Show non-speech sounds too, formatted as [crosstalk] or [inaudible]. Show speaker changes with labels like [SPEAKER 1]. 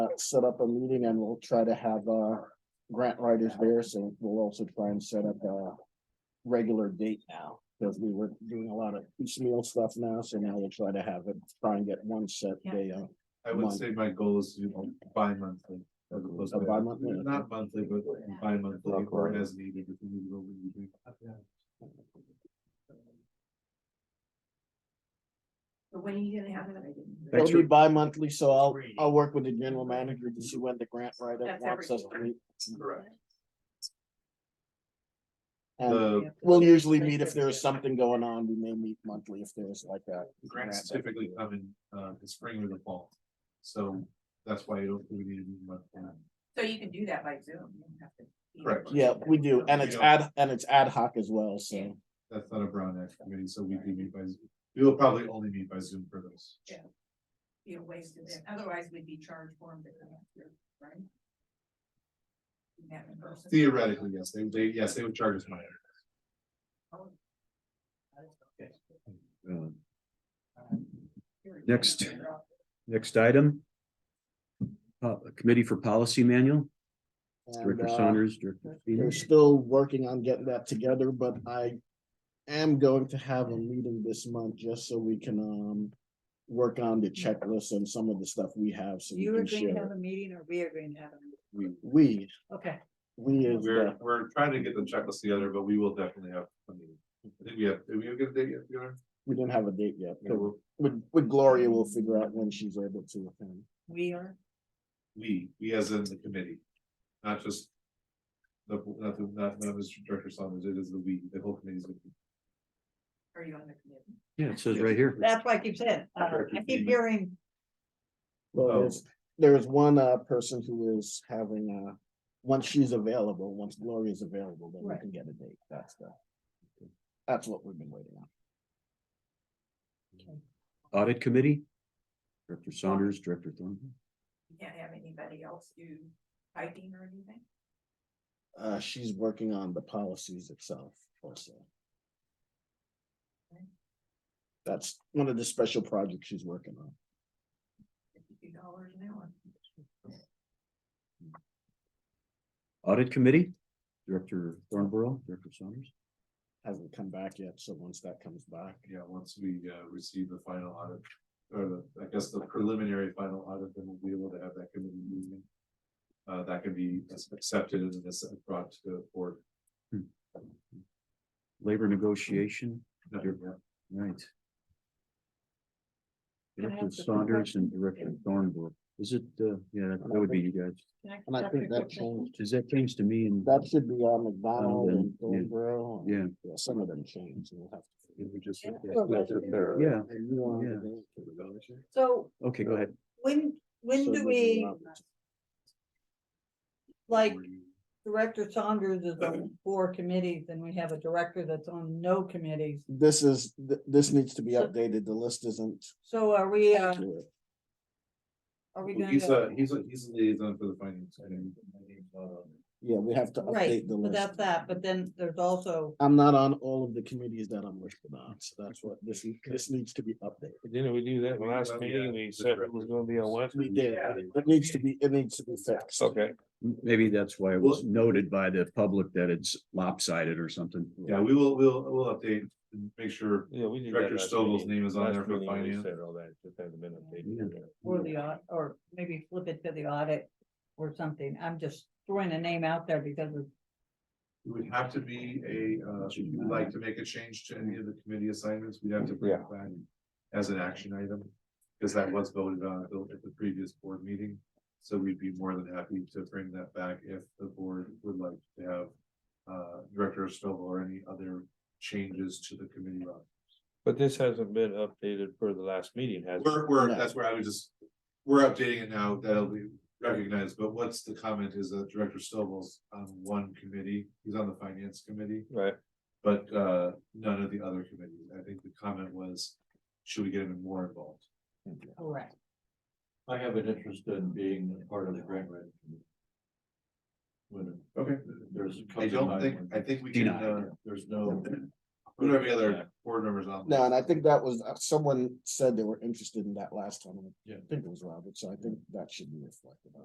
[SPEAKER 1] uh, set up a meeting and we'll try to have, uh, grant writers there, so we'll also try and set up a regular date now, because we were doing a lot of piecemeal stuff now, so now we'll try to have it, try and get one set
[SPEAKER 2] Yeah.
[SPEAKER 1] day, uh,
[SPEAKER 3] I would
[SPEAKER 1] Month.
[SPEAKER 3] say my goal is, you know, bi-monthly. as opposed
[SPEAKER 1] A
[SPEAKER 3] to-
[SPEAKER 1] bi-monthly?
[SPEAKER 3] Not monthly, but bi-monthly or as needed. if we need to go, we need
[SPEAKER 2] But when are you gonna have it? I didn't-
[SPEAKER 1] It'll
[SPEAKER 4] Thanks
[SPEAKER 1] be
[SPEAKER 4] for-
[SPEAKER 1] bi-monthly, so I'll, I'll work with the general manager to see when the grant writer
[SPEAKER 2] That's
[SPEAKER 1] wants us to
[SPEAKER 2] every
[SPEAKER 1] meet.
[SPEAKER 3] to- Correct.
[SPEAKER 1] And
[SPEAKER 3] The
[SPEAKER 1] we'll usually meet if there's something going on, we may meet monthly if there's like a.
[SPEAKER 3] grants
[SPEAKER 1] grant.
[SPEAKER 3] typically come in, uh, the spring or the fall. So that's why I don't think we need to be monthly.
[SPEAKER 2] So you can do that by Zoom. you don't have to be-
[SPEAKER 3] Correct.
[SPEAKER 1] Yeah, we do, and it's
[SPEAKER 3] We don't-
[SPEAKER 1] ad, and it's ad hoc as well, so.
[SPEAKER 3] That's not a Brown Act committee, so we can meet by, Zoom. we will probably only meet by Zoom for those.
[SPEAKER 2] Be a waste of it, otherwise we'd be charged for them to come up here, right? You have in person.
[SPEAKER 3] Theoretically, yes, they, they, yes, they would charge us money.
[SPEAKER 4] Um, Next. Next item. Uh, Committee for Policy Manual,
[SPEAKER 1] And,
[SPEAKER 4] Director
[SPEAKER 1] uh,
[SPEAKER 4] Saunders, Director.
[SPEAKER 1] we're
[SPEAKER 4] Stevens.
[SPEAKER 1] still working on getting that together, but I am going to have a meeting this month just so we can, um, work on the checklist and some of the stuff we have, so we
[SPEAKER 5] You are
[SPEAKER 1] can
[SPEAKER 5] going to
[SPEAKER 1] share.
[SPEAKER 5] have a meeting or we are going to have a meeting?
[SPEAKER 1] We,
[SPEAKER 5] Okay,
[SPEAKER 1] we is
[SPEAKER 3] We're,
[SPEAKER 1] the,
[SPEAKER 3] we're trying to get the checklist together, but we will definitely have. a meeting. I think we have, did we get a date yet? Fiona?
[SPEAKER 1] we didn't have a date yet,
[SPEAKER 3] Yeah,
[SPEAKER 1] but
[SPEAKER 3] we'll-
[SPEAKER 1] with, with Gloria, we'll figure out when she's able to attend.
[SPEAKER 5] we are,
[SPEAKER 3] We, we as in the committee, not just. The, not the, not, not Mr. Director Saunders, it is the we, the whole committee.
[SPEAKER 2] Are you on the committee?
[SPEAKER 4] Yeah, it says right here.
[SPEAKER 5] that's why I keep saying, uh, I keep hearing,
[SPEAKER 1] Well,
[SPEAKER 3] Oh.
[SPEAKER 1] there's, there is one, uh, person who is having, uh, once she's available, once Gloria is available, then we
[SPEAKER 5] Right.
[SPEAKER 1] can get a date, that's the. That's what we've been waiting on.
[SPEAKER 4] Audit Committee. Director Saunders, Director Thornton.
[SPEAKER 2] You can't have anybody else do typing or anything?
[SPEAKER 1] Uh, she's working on the policies itself also. That's one of the special projects she's working on.
[SPEAKER 2] Fifty dollars an hour.
[SPEAKER 4] Audit Committee, Director Thornborough, Director Saunders.
[SPEAKER 1] Hasn't come back yet, so once that comes back,
[SPEAKER 3] Yeah, once we uh receive the final audit, or the, I guess the preliminary final audit, then we'll be able to have that committee meeting. Uh, that can be accepted and this brought to the board.
[SPEAKER 4] Labor Negotiation,
[SPEAKER 3] Not
[SPEAKER 4] Sure.
[SPEAKER 3] yet.
[SPEAKER 4] right.
[SPEAKER 5] Can I
[SPEAKER 4] Director
[SPEAKER 5] ask a quick
[SPEAKER 4] Saunders and
[SPEAKER 5] question?
[SPEAKER 4] Director Thornborough. Is it, uh, yeah, that that would be you guys.
[SPEAKER 1] and I think that changed,
[SPEAKER 4] Does that change to me and?
[SPEAKER 1] that should be on McDonald and
[SPEAKER 4] Oh, then, yeah.
[SPEAKER 1] Thornborough.
[SPEAKER 4] Yeah.
[SPEAKER 1] Yeah, some of them changed, we'll have to.
[SPEAKER 4] Yeah,
[SPEAKER 1] And you want
[SPEAKER 4] Yeah.
[SPEAKER 1] to-
[SPEAKER 5] so
[SPEAKER 4] okay, go ahead.
[SPEAKER 5] when, when
[SPEAKER 1] So
[SPEAKER 5] do
[SPEAKER 1] this is
[SPEAKER 5] we,
[SPEAKER 1] not-
[SPEAKER 5] like, Director Saunders is
[SPEAKER 1] [clears throat]
[SPEAKER 5] on four committees and we have a director that's on no committees?
[SPEAKER 1] This is, th- this needs to be
[SPEAKER 5] So-
[SPEAKER 1] updated, the list isn't.
[SPEAKER 5] So are we, uh,
[SPEAKER 1] accurate.
[SPEAKER 5] are we
[SPEAKER 3] Well,
[SPEAKER 5] going
[SPEAKER 3] He's a,
[SPEAKER 5] to?
[SPEAKER 3] he's a, he's a liaison for the finance. committee.
[SPEAKER 1] Yeah, we have to
[SPEAKER 5] Right,
[SPEAKER 1] update the
[SPEAKER 5] but
[SPEAKER 1] list.
[SPEAKER 5] that's that, but then there's also,
[SPEAKER 1] I'm not on all of the committees that I'm listed on, so that's what this, this needs to be updated.
[SPEAKER 6] Didn't we do that
[SPEAKER 3] We
[SPEAKER 6] last
[SPEAKER 3] did, yeah,
[SPEAKER 6] meeting? We
[SPEAKER 3] that's
[SPEAKER 6] said
[SPEAKER 3] right.
[SPEAKER 6] it was gonna be on what?
[SPEAKER 1] We did, it needs to be, it needs to be fixed.
[SPEAKER 6] Okay,
[SPEAKER 4] Maybe that's why it was noted by the public that it's lopsided or something.
[SPEAKER 3] Yeah, we will, we'll, we'll update, and make sure
[SPEAKER 6] yeah, we did. that
[SPEAKER 3] Director
[SPEAKER 6] last
[SPEAKER 3] Stovall's
[SPEAKER 6] meeting.
[SPEAKER 3] name is on
[SPEAKER 6] Last
[SPEAKER 3] there for
[SPEAKER 6] meeting, we
[SPEAKER 3] finance.
[SPEAKER 6] Said all that, just hasn't been updated. yet.
[SPEAKER 5] or the, au- or maybe flip it to the audit or something. I'm just throwing a name out there because of
[SPEAKER 3] It would have to be a, uh, if you'd like to make a change to any of the committee assignments, we'd have to bring it back as an action item. Because that was voted on at the- at the previous board meeting, so we'd be more than happy to bring that back if the board would like to have. Uh, Director Stovall or any other changes to the committee. roster.
[SPEAKER 6] But this hasn't been updated for the last meeting, has it?
[SPEAKER 3] We're, we're, that's where I would just, we're updating it now, that'll be recognized, but what's the comment is that Director Stovall's on one committee, he's on the finance committee.
[SPEAKER 6] Right,
[SPEAKER 3] But uh, none of the other committees, I think the comment was, should we get him more involved?
[SPEAKER 5] Correct.
[SPEAKER 7] I have an interest in being a part of the grant writing. committee. When
[SPEAKER 3] Okay.
[SPEAKER 7] there's. a couple
[SPEAKER 3] I don't
[SPEAKER 7] of
[SPEAKER 3] think,
[SPEAKER 7] mine
[SPEAKER 3] I
[SPEAKER 7] when
[SPEAKER 3] think we can,
[SPEAKER 4] Denied.
[SPEAKER 3] uh,
[SPEAKER 7] There's no.
[SPEAKER 3] put every other board members on.
[SPEAKER 1] No, and I think that was, uh, someone said they were interested in that last time, and I
[SPEAKER 7] Yeah.
[SPEAKER 1] think it was Robert, so I think that should be reflected on.